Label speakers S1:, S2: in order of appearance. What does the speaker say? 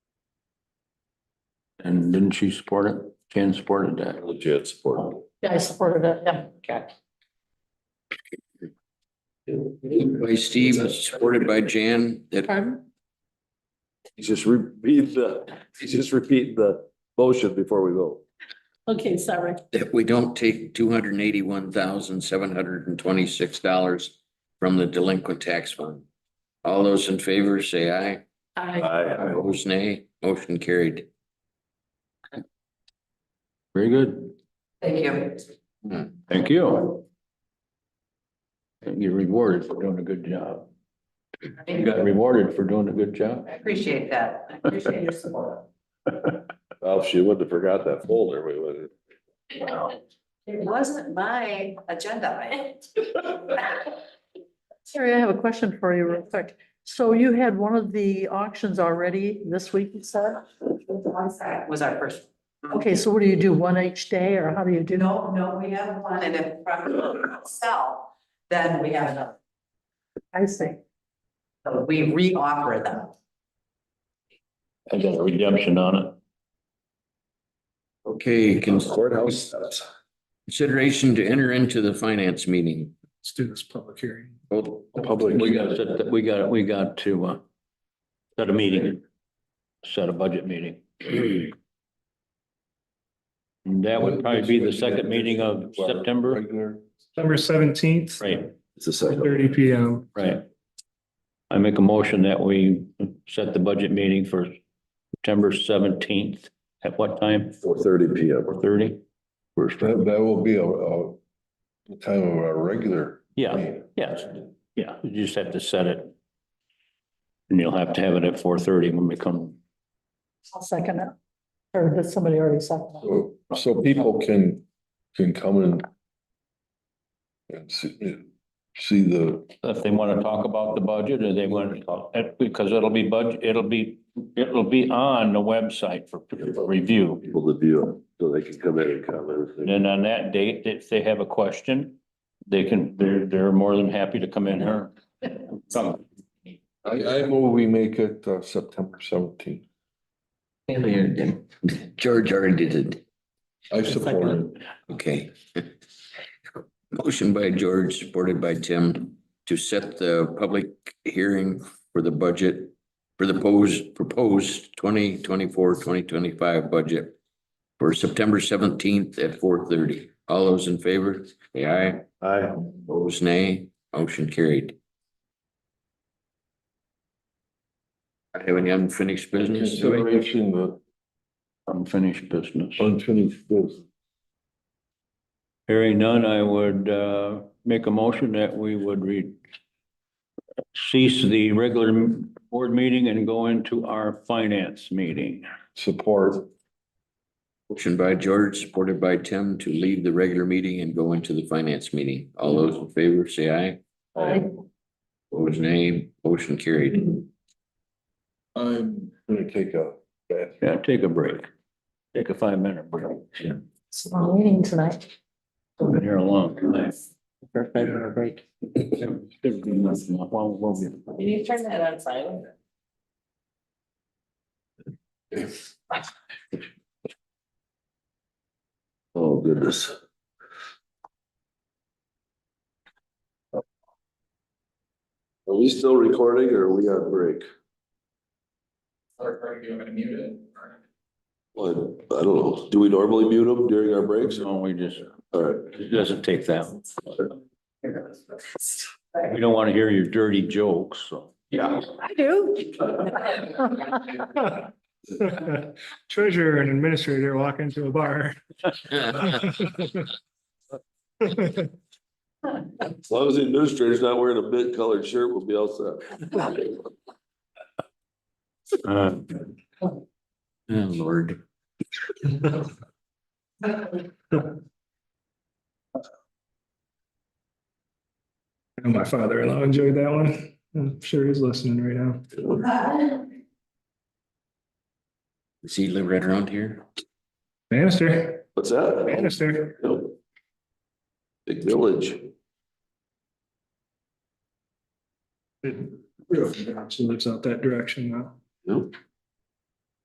S1: And didn't she support it? Jan supported that.
S2: Legit support.
S3: Yeah, I supported it, yeah. Okay.
S4: By Steve, supported by Jan, that
S3: Pardon?
S2: You Just repeat the, you just repeat the motion before we vote.
S3: Okay, sorry.
S4: that we don't take two hundred and eighty-one thousand, seven hundred and twenty-six dollars from the delinquent tax fund. All those in favor, say aye.
S3: I,
S2: I,
S4: Opposed, nay. Motion carried.
S1: Very good.
S5: Thank you.
S1: Thank you. And you're rewarded for doing a good job. You got rewarded for doing a good job.
S5: I appreciate that. I appreciate your support.
S2: well, if she wouldn't have forgot that folder, we would
S5: It wasn't my agenda item.
S3: Terry, I have a question for you real quick. So you had one of the auctions already this week, you said?
S5: Was our first.
S3: Okay, so what do you do, one each day, or how do you do? that?
S5: No, no, we have one and if property doesn't sell, then we have another.
S3: I see.
S5: So We re-offer them.
S1: I got a redemption on it.
S4: Okay, cons-
S2: Courthouse.
S4: consideration to enter into the finance meeting.
S6: Let's do this public hearing.
S4: Oh,
S1: Public, we got, to- we got, we got to, uh, set a meeting, set a budget meeting. And that would probably be the second meeting of September.
S6: September seventeenth,
S1: Right,
S2: It's the second.
S6: thirty P M.
S1: right. I make a motion that we set the budget meeting for September seventeenth. At what time?
S2: Four thirty P M.
S1: Four thirty? First,
S7: That, that will be a, a the time of our regular.
S1: yeah,
S7: meeting.
S1: yes, yeah, you just have to set it. And you'll have to have it at four thirty when we come.
S3: I'll second it. Or did somebody already second it?
S7: So, so people can, can come and and see, see the,
S1: if they want to talk about the budget or they want to talk, eh, because it'll be budget, it'll be, it'll be on the website for for review.
S2: People to view, it, so they can come in and comment.
S1: And then on that date, if they have a question, they can, they're, they're more than happy to come in here. Some-
S7: I, I move we make it uh, September seventeenth.
S4: George already did it.
S7: I support it.
S4: Okay. Motion by George, supported by Tim, to set the public hearing for the budget for the posed, proposed 2024-2025 budget for September seventeenth at four thirty. All those in favor, say aye.
S2: I,
S4: Opposed, nay. Motion carried. I Have any unfinished business?
S7: Consideration of
S1: Unfinished business.
S7: unfinished business.
S1: Hearing none, I would, uh, make a motion that we would re cease the regular board meeting and go into our finance meeting.
S7: Support.
S4: Motion by George, supported by Tim, to leave the regular meeting and go into the finance meeting. All those in favor, say aye.
S3: I
S4: Opposed, nay. Motion carried.
S7: I'm gonna take a bath.
S1: Yeah, take a break. Take a five minute break. Yeah.
S3: It's a long meeting tonight.
S1: Been here a long time.
S3: break.
S5: Can you turn that on silent?
S2: oh goodness. Are we still recording or are we on break? Well, I don't know. Do we normally mute them during our breaks?
S1: No, we just,
S2: All right.
S1: it doesn't take that. We don't want to hear your dirty jokes, so.
S2: Yeah.
S3: I do.
S6: Treasurer and administrator walk into a bar.
S4: Oh,
S2: As long as the administrator's not wearing a mint colored shirt, we'll be all set.
S1: Uh,
S4: Oh, Lord.
S6: I know My father-in-law enjoyed that one. I'm sure he's listening right now.
S4: Does he live right around here?
S6: Bannister,
S2: What's that?
S6: Bannister.
S2: Yep. Big village.
S6: She lives out that direction now.
S2: Yep.